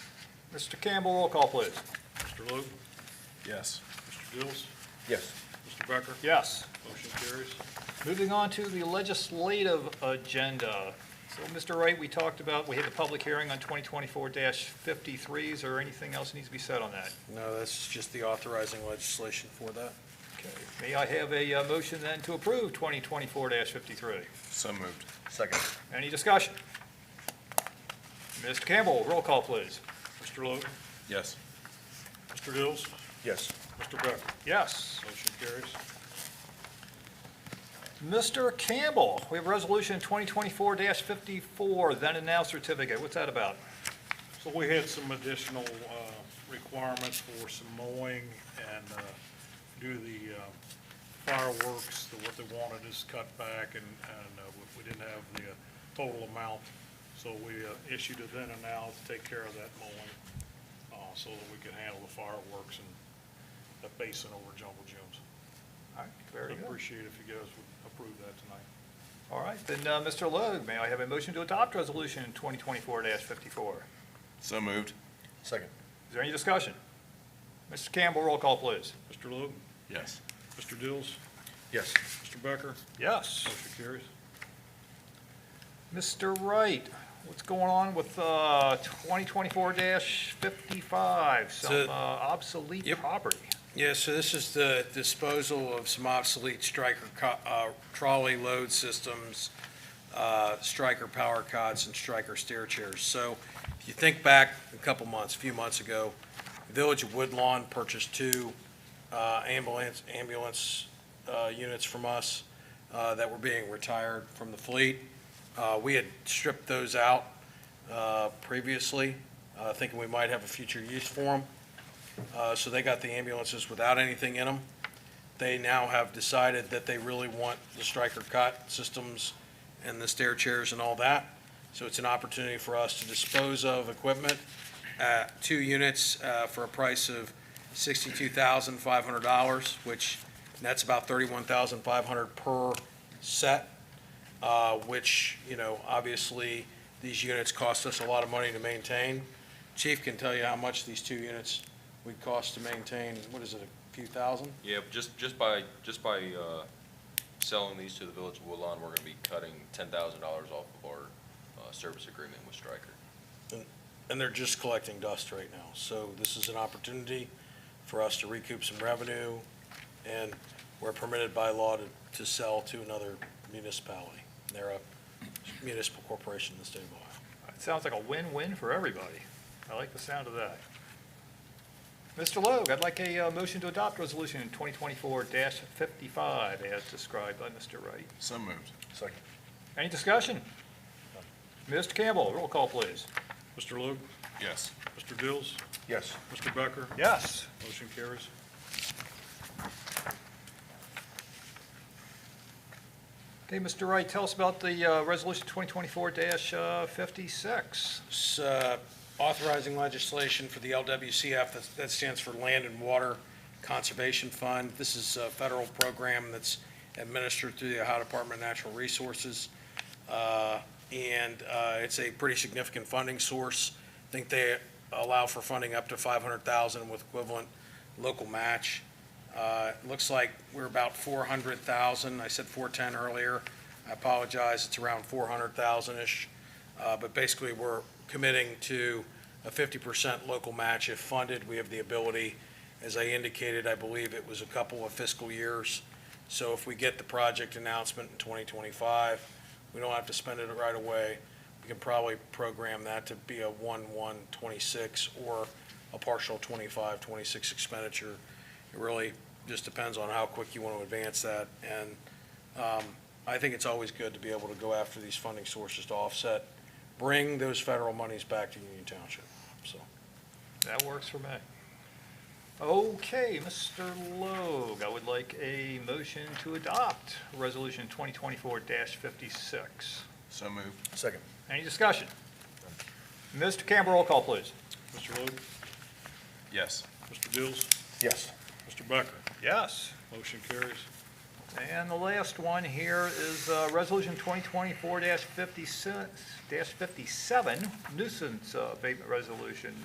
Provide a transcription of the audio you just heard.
Mr. Campbell, roll call, please. Mr. Logue, Yes. Mr. Dills, Yes. Mr. Becker, Yes. motion carries. Moving on to the legislative agenda. So, Mr. Wright, we talked about, we had the public hearing on 2024-53. Is there anything else that needs to be said on that? No, that's just the authorizing legislation for that. Okay. May I have a uh, motion then to approve 2024-53? So moved. Second. Any discussion? Mr. Campbell, roll call, please. Mr. Logue, Yes. Mr. Dills, Yes. Mr. Becker, Yes. motion carries. Mr. Campbell, we have Resolution 2024-54, then and now certificate. What's that about? So we had some additional uh, requirements for some mowing and uh, do the uh, fireworks, the- what they wanted is cut back and, and uh, we- we didn't have the uh, total amount. So we uh, issued a then and now to take care of that mowing, uh, so that we could handle the fireworks and the basin over Jumbo Jim's. All right, very good. Appreciate if you guys would approve that tonight. All right, then, uh, Mr. Logue, may I have a motion to adopt Resolution 2024-54? Is So moved. Second. there any discussion? Mr. Campbell, roll call, please. Mr. Logue, Yes. Mr. Dills, Yes. Mr. Becker, Yes. motion carries. Mr. Wright, what's going on with uh, 2024-55, some So- uh, obsolete Yep. property? Yeah, so this is the disposal of some obsolete striker co- uh, trolley load systems, uh, striker power cots, and striker stair chairs. So if you think back a couple months, a few months ago, Village of Woodlawn purchased two uh, ambulance, ambulance uh, units from us uh, that were being retired from the fleet. Uh, We had stripped those out uh, previously, uh, thinking we might have a future use for them. Uh, So they got the ambulances without anything in them. They now have decided that they really want the striker cot systems and the stair chairs and all that. So it's an opportunity for us to dispose of equipment, uh, two units uh, for a price of $62,500, which, and that's about $31,500 per set, uh, which, you know, obviously, these units cost us a lot of money to maintain. Chief can tell you how much these two units would cost to maintain, what is it, a few thousand? Yeah, but just, just by, just by uh, selling these to the Village of Woodlawn, we're gonna be cutting ten thousand dollars off of our uh, service agreement with Stryker. And they're just collecting dust right now. So this is an opportunity for us to recoup some revenue, and we're permitted by law to, to sell to another municipality. They're a municipal corporation in the state of Ohio. It sounds like a win-win for everybody. I like the sound of that. Mr. Logue, I'd like a uh, motion to adopt Resolution 2024-55 as described by Mr. Wright. So moved. Second. Any discussion? Mr. Campbell, roll call, please. Mr. Logue, Yes. Mr. Dills, Yes. Mr. Becker, Yes. Motion carries. Okay, Mr. Wright, tell us about the uh, Resolution uh, 2024-56. It's, uh, authorizing legislation for the LWCF, that's- that stands for Land and Water Conservation Fund. This is a federal program that's administered through the Ohio Department of Natural Resources. Uh, And uh, it's a pretty significant funding source. I think they allow for funding up to 500,000 with equivalent local match. Uh, it Looks like we're about 400,000. I said 410 earlier. I apologize, it's around 400,000-ish. Uh, But basically, we're committing to a 50% local match if funded. We have the ability, as I indicated, I believe it was a couple of fiscal years. So if we get the project announcement in 2025, we don't have to spend it right away. We can probably program that to be a 1/1/26 or a partial 25/26 expenditure. It really just depends on how quick you want to advance that. And um, I think it's always good to be able to go after these funding sources to offset, bring those federal monies back to Union Township, so. That works for me. Okay, Mr. Logue, I would like a motion to adopt Resolution 2024-56. So moved. Second. Any discussion? Mr. Campbell, roll call, please. Mr. Logue, Yes. Mr. Dills, Yes. Mr. Becker, Yes. motion carries. And the last one here is uh, Resolution 2024-56 dash 57 nuisance uh, abatement resolution.